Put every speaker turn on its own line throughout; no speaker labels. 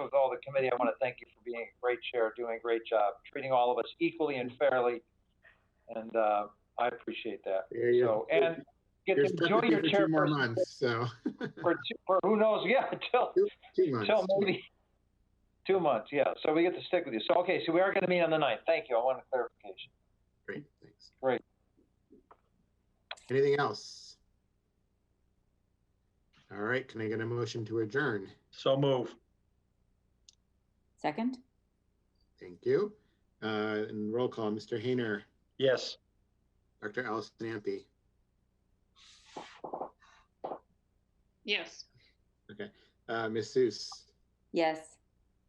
with all the committee, I want to thank you for being a great chair, doing a great job, treating all of us equally and fairly. And, uh, I appreciate that.
Yeah, yeah.
So, and get
You're
to
stuck
enjoy
with me
your
for two more
chairperson
months, so,
for, two- for who knows, yeah, until,
two
until
months.
maybe two months, yeah. So we get to stick with you. So, okay, so we are going to meet on the ninth. Thank you. I want a clarification.
Great, thanks.
Great.
Anything else? All right, can I get a motion to adjourn?
So move.
Second?
Thank you. Uh, and roll call, Mr. Hayner,
Yes.
Dr. Allison Ampe,
Yes.
uh, Ms. Seuss,
Yes.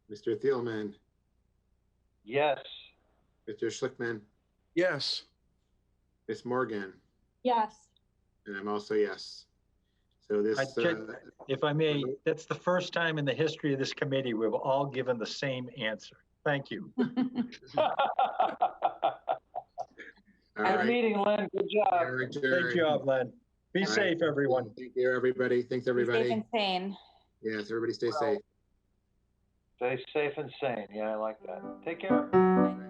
Mr. Thielman,
Yes.
Mr. Schlickman,
Yes.
Ms. Morgan,
Yes.
and I'm also yes. So this,
I check-
uh,
If I may, that's the first time in the history of this committee we've all given the same answer. Thank you.
all
Good
right.
meeting, Lynn. Good
we
job.
are adjourned.
Great job, Len. Be
All right.
safe, everyone.
Thank you, everybody. Thanks,
Be Safe
everybody.
and sane.
Yes, everybody stay
Well,
safe.
Stay safe and sane. Yeah, I like that. Take care.
Bye.